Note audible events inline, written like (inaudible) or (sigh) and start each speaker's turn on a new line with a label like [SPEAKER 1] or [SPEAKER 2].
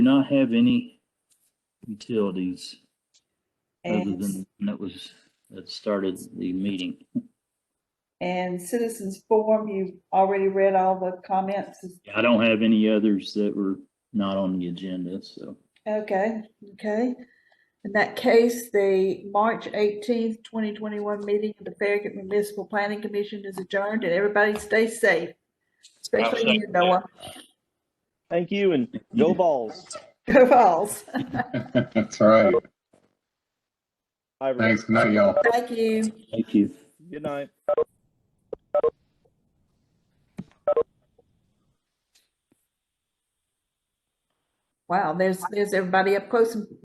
[SPEAKER 1] not have any utilities other
[SPEAKER 2] And,
[SPEAKER 1] than that was, that started the meeting.
[SPEAKER 2] and citizens forum, you've already read all the comments.
[SPEAKER 1] I don't have any others that were not on the agenda, so.
[SPEAKER 2] Okay, okay. In that case, the March eighteenth, twenty twenty-one meeting of the Farragut Municipal Planning Commission is adjourned and everybody stay safe. Especially you, Noah. (laughs)
[SPEAKER 3] Thank you and go balls.
[SPEAKER 2] Go Vols.
[SPEAKER 4] That's right.
[SPEAKER 3] Bye, everyone.
[SPEAKER 4] Thanks. Good night, y'all.
[SPEAKER 2] Thank you.
[SPEAKER 1] Thank you.
[SPEAKER 3] Good night.
[SPEAKER 2] Wow, there's, there's everybody up close and